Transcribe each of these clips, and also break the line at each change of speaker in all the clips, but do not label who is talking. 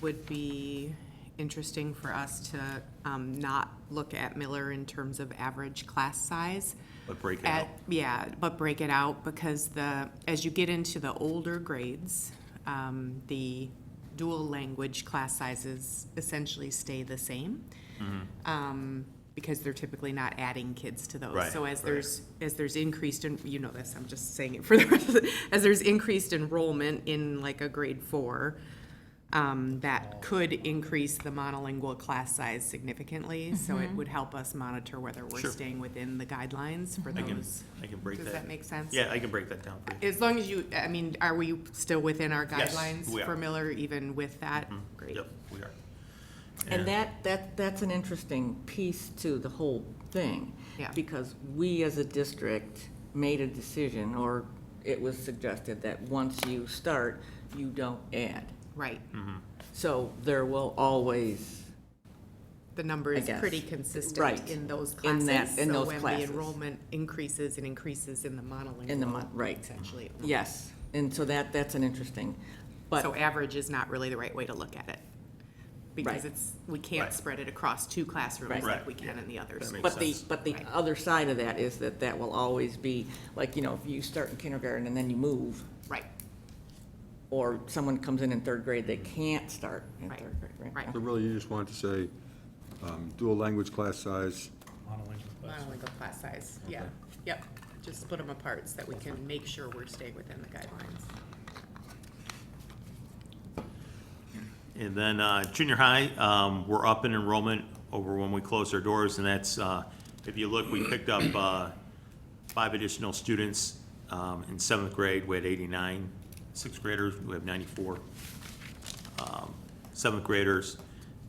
would be interesting for us to um, not look at Miller in terms of average class size.
But break it
At-
out.
Yeah, but break it out because the, as you get into the older grades, um, the dual language class sizes essentially stay the same.
Mm-hmm.
Um, because they're typically not adding kids to those.
Right,
So as
right.
there's, as there's increased, and you know this, I'm just saying it for the, rest of the- as there's increased enrollment in like a grade four, um,
Oh.
that could increase the monolingual class size significantly, so it would help us monitor whether we're
Sure.
staying within the guidelines for
I can,
those.
I can break that.
Does that make sense?
Yeah, I can break that down for you.
As long as you, I mean, are we still within our
Yes,
guidelines
we
for
are. Mm-hmm.
Miller even with that? Great.
Yep, we are.
And that, that, that's an interesting piece to the whole thing.
Yeah.
Because we as a district made a decision, or it was suggested that once you start, you don't add.
Right.
So there will always,
The number
I
is
guess.
pretty consistent
Right.
in those
In that-
classes.
in
so
those
when the
classes.
enrollment increases, it increases in the monolingual.
In the mon- right.
Essentially.
yes, and so that, that's an interesting,
So
but,
average is not really the right way to look at it. Because
Right.
it's, we can't
Right.
spread it across two classrooms
Right.
like
Right,
we can in the others.
That makes
but the,
sense.
but the other side of that is that that will always be, like, you know, if you start in kindergarten and then you move,
Right,
or someone comes in in third grade, they can't start in
Right.
third grade, right?
Right.
So really, you just wanted to say, um, dual language class size,
monolingual class size, yeah, yep. Just split them apart so that we can make sure we're staying within the guidelines.
And then, uh, junior high, um, we're up in enrollment over when we closed our doors, and that's, uh, if you look, we picked up, uh, five additional students, um, in seventh grade, we had eighty-nine. Sixth graders, we have ninety-four. um, Seventh graders,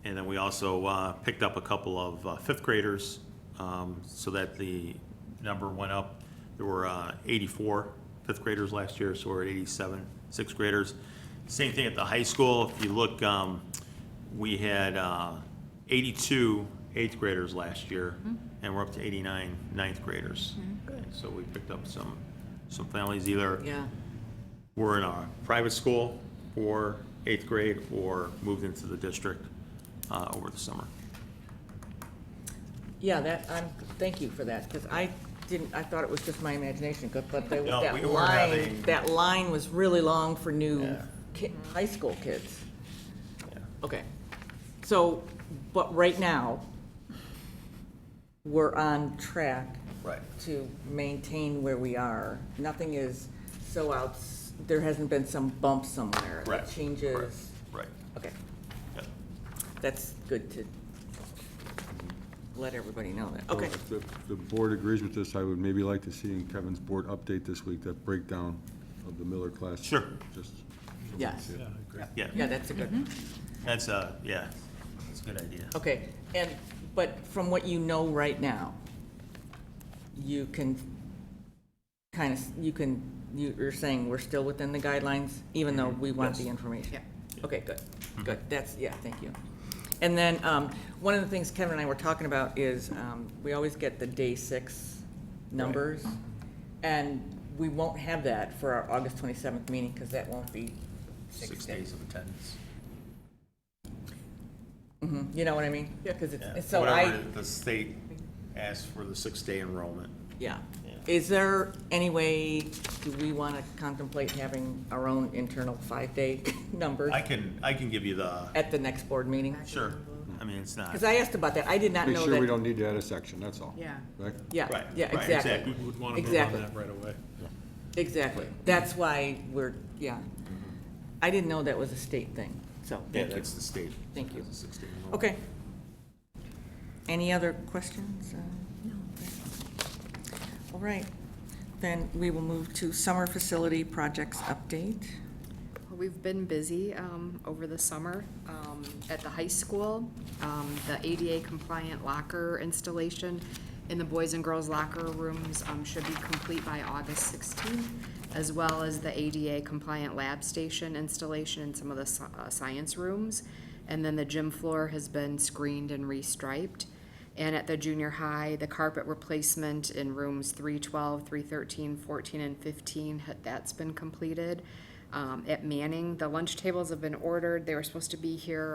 and then we also, uh, picked up a couple of uh, fifth graders, um, so that the number went up. There were, uh, eighty-four fifth graders last year, so we're at eighty-seven sixth graders. Same thing at the high school, if you look, um, we had, uh, eighty-two eighth graders last year, and we're up to 89 ninth graders. So we picked up some, some families either
Yeah,
were in a private school or eighth grade or moved into the district uh, over the summer.
yeah, that, I'm, thank you for that, because I didn't, I thought it was just my imagination, 'cause- but there was
No,
that
we were having-
line, that line was really long for new
Yeah.
ki- high school kids.
Yeah.
Okay, so, but right now, we're on track
Right.
to maintain where we are. Nothing is so outs, there hasn't been some bump somewhere.
Right, right.
That changes,
Right.
okay.
Yep.
That's good to let everybody know that.
So
Okay,
If the- the board agrees with this, I would maybe like to see in Kevin's board update this week, that breakdown of the Miller class.
Sure.
Just. so we can
Yes.
see it.
Yeah,
yeah, that's a good,
that's a, yeah, that's a good idea.
okay. And, but from what you know right now, you can kind of, you can, you- you're saying we're still within the guidelines, even though we want the
Yes. Mm-hmm.
information?
Yep.
Okay, good, good, that's, yeah, thank you. And then, um, one of the things Kevin and I were talking about is, um, we always get the day six numbers, and we won't have that for our August twenty-seventh meeting, because that won't be
Six days of attendance.
You know what I mean? Yeah. Because it's,
Yeah.
it's- so
Whatever
I,
The state asked for the six-day enrollment.
yeah.
Yeah.
Is there any way, do we want to contemplate having our own internal five-day numbers
I can, I can give you the,
at the next board meeting?
sure, I mean, it's not.
Because I asked about that, I did not
Make
know
sure we
that.
don't need to add a section, that's all.
Yeah.
Right?
Yeah,
Right,
yeah,
right,
exactly,
We would want to move on
Exactly.
that right away.
exactly. That's why we're, yeah. I didn't know that was a state thing, so,
Yeah,
thank you.
that's the state.
Thank you.
That's the six-day enrollment.
Okay. Any other questions? Uh, No. All right, then we will move to summer facility projects update.
We've been busy um, over the summer um, at the high school. Um, The ADA compliant locker installation in the boys and girls locker rooms um, should be complete by August 16th, as well as the ADA compliant lab station installation in some of the sci- uh, science rooms. And then the gym floor has been screened and restriped. And at the junior high, the carpet replacement in rooms 312, 313, 14, and 15, ha- that's been completed. um, at Manning. The lunch tables have been ordered. They were supposed to be here